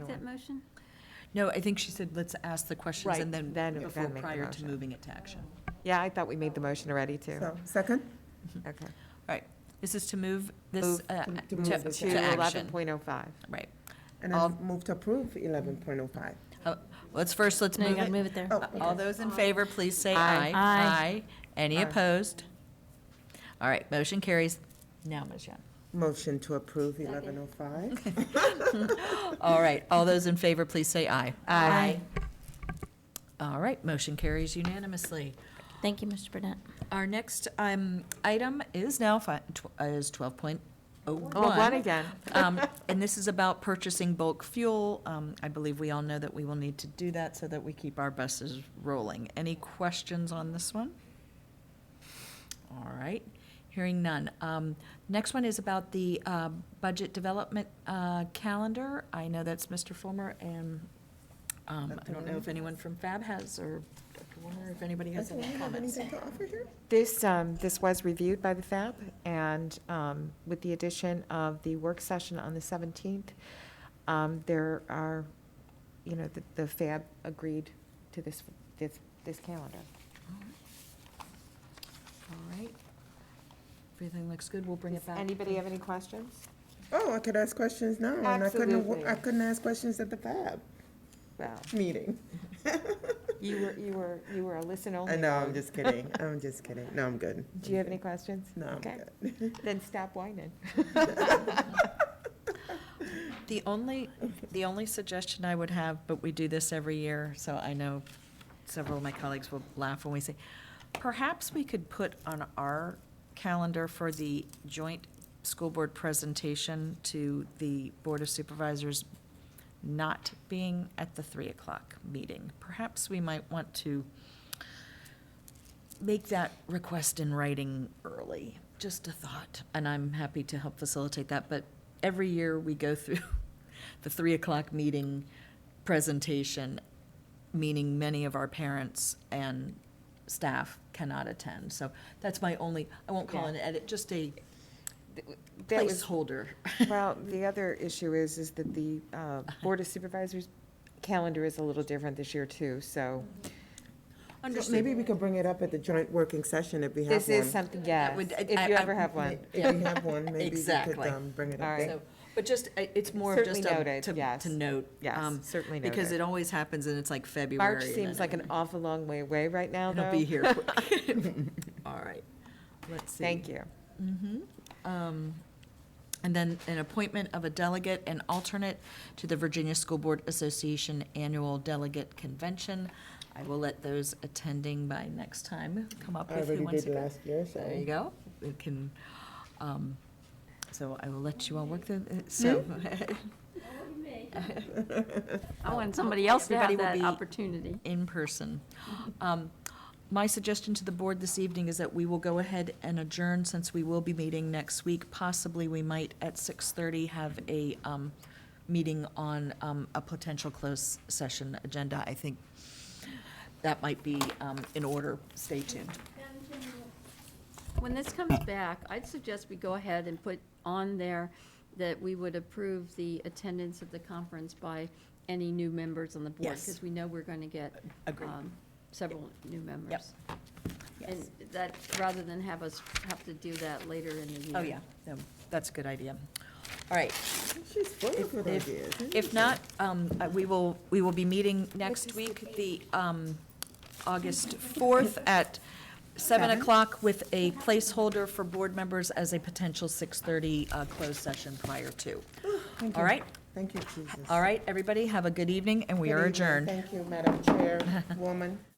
that motion? No, I think she said, let's ask the questions Right, and then, then- before, then make the prior to motion. moving it to action. Yeah, I thought we made the motion already, too. So, second? Okay. This is to move this Move uh, to- to to move To this to down. eleven action. point oh five. Right. And All- I Um, move to approve eleven point oh five. Let's first, let's No, you move gotta it. Uh, move it there. Oh, All okay. those in favor, please say aye. Aye. Aye. Any Aye. opposed? All right, motion carries. Now, Ms. Young. Motion to approve eleven oh five. All right, all those in favor, please say aye. Aye. All right, motion carries unanimously. Thank you, Mr. Burnett. Our next um, item is now fi- tw- is twelve point oh one. Oh, one again. Um, And this is about purchasing bulk fuel. Um, I believe we all know that we will need to do that so that we keep our buses rolling. Any questions on this one? All right, hearing none. Um, Next one is about the uh, budget development uh, calendar. I know that's Mr. Fulmer, and um, I don't know if anyone from FAB has, or Dr. Warner, if anybody has Does any anyone have comments. anything to offer here? This, um, this was reviewed by the FAB, and um, with the addition of the work session on the 17th, um, there are, you know, the- the FAB agreed to this, this, this calendar. All right. Everything looks good, we'll bring Does it back. anybody have any questions? Oh, I could ask questions now, and I couldn't, wa- I Absolutely. couldn't ask questions at the Fab Well, meeting. you were, you were, you were a listen-only. I know, I'm just kidding, I'm just kidding, no, I'm good. Oh. Do you have any questions? No, I'm Okay. good. Then stop whining. The only, the only suggestion I would have, but we do this every year, so I know several of my colleagues will laugh when we say, perhaps we could put on our calendar for the joint school board presentation to the Board of Supervisors not being at the three o'clock meeting. Perhaps we might want to make that request in writing early, just a thought. And I'm happy to help facilitate that, but every year we go through the three o'clock meeting presentation, meaning many of our parents and staff cannot attend. So that's my only, I won't call Yeah. an edit, just a That was- placeholder. Well, the other issue is, is that the uh, Uh-huh. Board of Supervisors calendar is a little different this year, too, so Mm-hmm. So Maybe we could bring it up at the joint working session if we have one. this is something, yes, would- I- if you I- ever have one. If we have one, maybe we could Exactly. um, bring it up All right. there. So, But just, uh, it's more of just Certainly a, noted, to, yes. to note. Yes, um, certainly noted. Because it always happens and it's like February. March and then seems like an awful long way away right now, It'll be though. here quick. All right, let's see. Thank you. Um, And then an appointment of a delegate and alternate to the Virginia School Board Association Annual Delegate Convention. I will let those attending by next time come up I with who already wants did to go. last year, so. There you go. We can, um, so I will let you all work through, it, so. I want somebody else to have Everybody that will be- opportunity. in person. Um, My suggestion to the board this evening is that we will go ahead and adjourn since we will be meeting next week. Possibly, we might at 6:30 have a um, meeting on um, a potential closed session agenda. I think that might be um, in order. Stay tuned. When this comes back, I'd suggest we go ahead and put on there that we would approve the attendance of the conference by any new members on the board. Yes. Because we know we're going to get Agreed. um, several new members. And that, rather than have us have to do that later in the year. Oh, yeah, No, that's a good idea. All right. She's full of good if- ideas. If not, um, uh, we will, we will be meeting next week, the, um, August fourth at seven Seven. o'clock with a placeholder for board members as a potential six-thirty, uh, closed session prior to. Thank All you. right, Thank you, Jesus. all right, everybody, have a good evening, and we Good are evening. adjourned. Thank you, Madam Chairwoman.